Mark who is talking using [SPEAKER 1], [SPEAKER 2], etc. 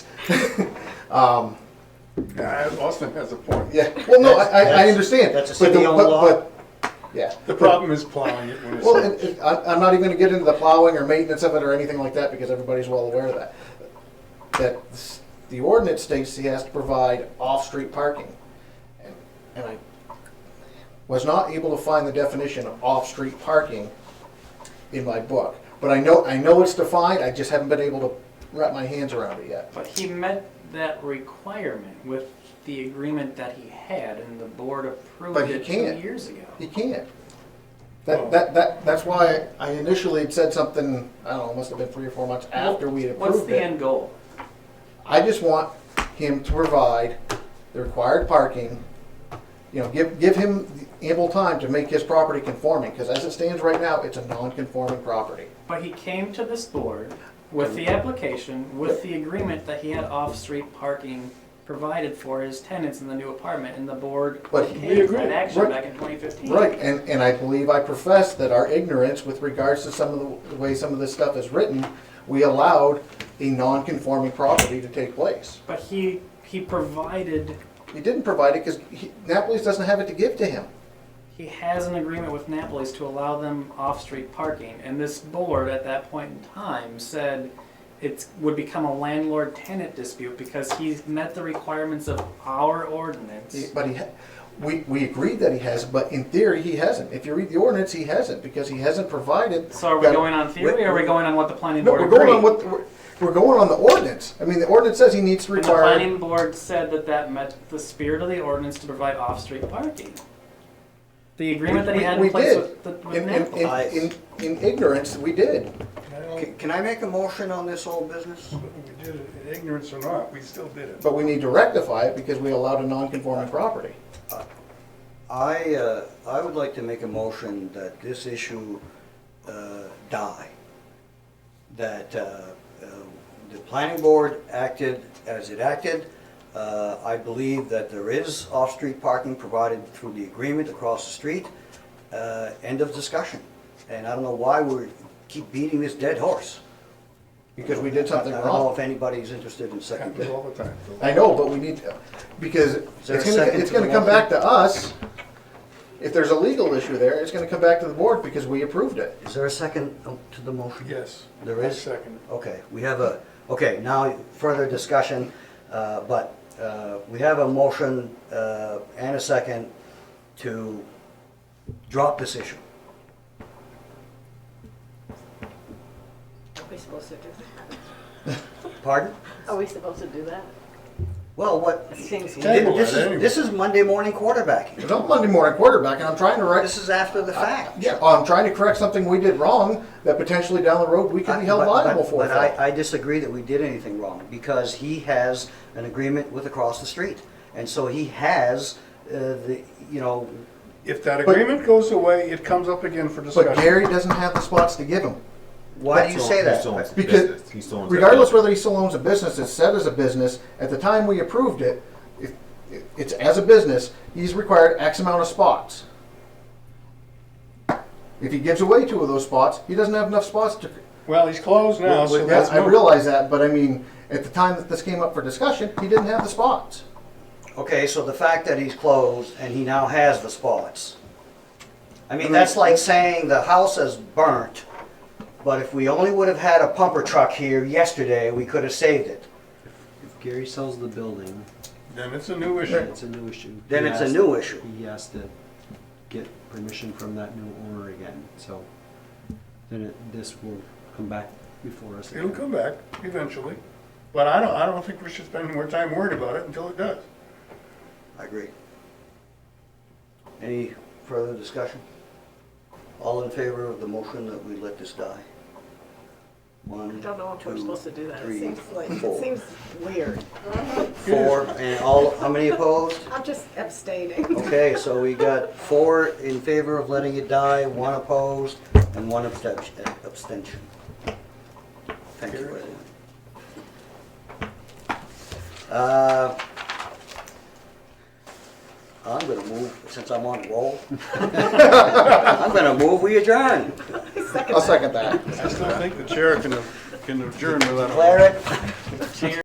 [SPEAKER 1] Um,
[SPEAKER 2] Yeah, Austin has a point.
[SPEAKER 1] yeah, well, no, I, I, I
[SPEAKER 3] That's-
[SPEAKER 1] understand.
[SPEAKER 3] that's a
[SPEAKER 1] But the-
[SPEAKER 3] city-owned
[SPEAKER 1] but-
[SPEAKER 3] law.
[SPEAKER 1] but- Yeah.
[SPEAKER 2] The problem is plowing it when
[SPEAKER 1] Well, and,
[SPEAKER 2] it's,
[SPEAKER 1] and I, I'm not even gonna get into the plowing or maintenance of it or anything like that, because everybody's well aware of that. That s- the ordinance states he has to provide off-street parking. And- And I was not able to find the definition of off-street parking in my book. But I know, I know it's defined, I just haven't been able to wrap my hands around it yet.
[SPEAKER 4] But he met that requirement with the agreement that he had and the board approved
[SPEAKER 1] But he
[SPEAKER 4] it two
[SPEAKER 1] can't.
[SPEAKER 4] years ago.
[SPEAKER 1] He can't. That, that, that, that's why I initially had said something, I don't know, must have been three or four months after we had
[SPEAKER 4] What's
[SPEAKER 1] approved
[SPEAKER 4] the
[SPEAKER 1] it.
[SPEAKER 4] end goal?
[SPEAKER 1] I just want him to provide the required parking, you know, give, give him ample time to make his property conforming, because as it stands right now, it's a non-conforming property.
[SPEAKER 4] But he came to this board with the application, with the agreement that he had off-street parking provided for his tenants in the new apartment, and the board
[SPEAKER 1] But-
[SPEAKER 4] came
[SPEAKER 1] We
[SPEAKER 4] to
[SPEAKER 2] agree,
[SPEAKER 4] that action
[SPEAKER 1] right.
[SPEAKER 4] back in 2015.
[SPEAKER 1] Right, and, and I believe I professed that our ignorance with regards to some of the the way some of this stuff is written, we allowed a non-conforming property to take place.
[SPEAKER 4] But he, he provided,
[SPEAKER 1] He didn't provide it because Napoli's doesn't have it to give to him.
[SPEAKER 4] he has an agreement with Napoli's to allow them off-street parking, and this board at that point in time said it would become a landlord-tenant dispute because he's met the requirements of our
[SPEAKER 1] He-
[SPEAKER 4] ordinance.
[SPEAKER 1] But he, ha- we, we agreed that he has, but in theory, he hasn't. If you read the ordinance, he hasn't because he hasn't provided.
[SPEAKER 4] So are we
[SPEAKER 1] that-
[SPEAKER 4] going on theory, or are we going on what the planning
[SPEAKER 1] No,
[SPEAKER 4] board
[SPEAKER 1] we're
[SPEAKER 4] agreed?
[SPEAKER 1] going on what, we're- we're going on the ordinance. I mean, the ordinance says he needs to
[SPEAKER 4] And the
[SPEAKER 1] require.
[SPEAKER 4] planning board said that that met the spirit of the ordinance to provide off-street parking. The agreement that he
[SPEAKER 1] We-
[SPEAKER 4] had
[SPEAKER 1] we
[SPEAKER 4] in place
[SPEAKER 1] did.
[SPEAKER 4] with, the- with
[SPEAKER 1] In, in,
[SPEAKER 4] Naples.
[SPEAKER 1] in, in, in ignorance, we did.
[SPEAKER 3] Can- Can I make a motion on this whole business?
[SPEAKER 2] we did it in ignorance or not, we still did it.
[SPEAKER 1] But we need to rectify it because we allowed a non-conforming property.
[SPEAKER 3] I, uh, I would like to make a motion that this issue uh, die. That uh, uh, the planning board acted as it acted. Uh, I believe that there is off-street parking provided through the agreement across the street. Uh, End of discussion. And I don't know why we keep beating this dead horse.
[SPEAKER 1] Because we did something
[SPEAKER 3] I don't know
[SPEAKER 1] wrong.
[SPEAKER 3] if anybody's interested in second.
[SPEAKER 2] Happens all the time.
[SPEAKER 1] I know, but we need, to- because it's
[SPEAKER 3] there a
[SPEAKER 1] gonna,
[SPEAKER 3] second
[SPEAKER 1] it's
[SPEAKER 3] to the
[SPEAKER 1] gonna come
[SPEAKER 3] motion?
[SPEAKER 1] back to us. If there's a legal issue there, it's gonna come back to the board because we approved it.
[SPEAKER 3] Is there a second to the motion?
[SPEAKER 2] Yes.
[SPEAKER 3] There is?
[SPEAKER 2] Second.
[SPEAKER 3] Okay, we have a, okay, now further discussion, uh, but uh, we have a motion uh, and a second to drop this issue.
[SPEAKER 5] Are we supposed to do that?
[SPEAKER 3] Pardon?
[SPEAKER 5] Are we supposed to do that?
[SPEAKER 3] Well, what,
[SPEAKER 5] It seems
[SPEAKER 2] Table it
[SPEAKER 3] this
[SPEAKER 2] anyway.
[SPEAKER 3] is, this is Monday morning quarterbacking.
[SPEAKER 1] It's on Monday morning quarterback, and I'm trying to write.
[SPEAKER 3] This is after the fact.
[SPEAKER 1] Yeah, I'm trying to correct something we did wrong that potentially down the road we could be held
[SPEAKER 3] Uh, But- but-
[SPEAKER 1] liable for.
[SPEAKER 3] But I, I disagree that we did anything wrong, because he has an agreement with across the street. And so he has, uh, the, you know,
[SPEAKER 2] If that agreement goes away, it comes up again for
[SPEAKER 1] But
[SPEAKER 2] discussion.
[SPEAKER 1] Gary doesn't have the spots to give him.
[SPEAKER 3] why do you say that?
[SPEAKER 1] Because regardless whether he still owns a business, it's set as a business, at the time we approved it, if, it's as a business, he's required X amount of spots. If he gives away two of those spots, he doesn't have enough spots to,
[SPEAKER 2] Well, he's closed now, so
[SPEAKER 1] yeah,
[SPEAKER 2] that's.
[SPEAKER 1] I
[SPEAKER 2] no-
[SPEAKER 1] realize that, but I mean, at the time that this came up for discussion, he didn't have the spots.
[SPEAKER 3] Okay, so the fact that he's closed and he now has the spots. I mean, that's like saying the house is burnt, but if we only would have had a pumper truck here yesterday, we could have saved it.
[SPEAKER 6] If Gary sells the building,
[SPEAKER 2] Then it's a new issue.
[SPEAKER 6] it's a new issue.
[SPEAKER 3] Then
[SPEAKER 6] He
[SPEAKER 3] it's a
[SPEAKER 6] has-
[SPEAKER 3] new issue.
[SPEAKER 6] He has to get permission from that new owner again, so then it, this will come back before us.
[SPEAKER 2] It'll
[SPEAKER 6] again.
[SPEAKER 2] come back eventually, but I don't, I don't think we should spend more time worried about it until it does.
[SPEAKER 3] I agree. Any further discussion? All in favor of the motion that we let this die? One,
[SPEAKER 5] I don't know if we're
[SPEAKER 3] two,
[SPEAKER 5] supposed to do that. It
[SPEAKER 3] three,
[SPEAKER 5] seems like,
[SPEAKER 3] four.
[SPEAKER 5] it seems weird.
[SPEAKER 3] Four, and all, how many opposed?
[SPEAKER 5] I'm just abstaining.
[SPEAKER 3] Okay, so we got four in favor of letting it die, one opposed, and one abstention. abstention. Thank you, everyone. Uh, I'm gonna move, since I'm on a roll, I'm gonna move, we adjourn.
[SPEAKER 1] I'll second that.
[SPEAKER 2] I still think the chair can, can adjourn without. a-
[SPEAKER 3] Declare it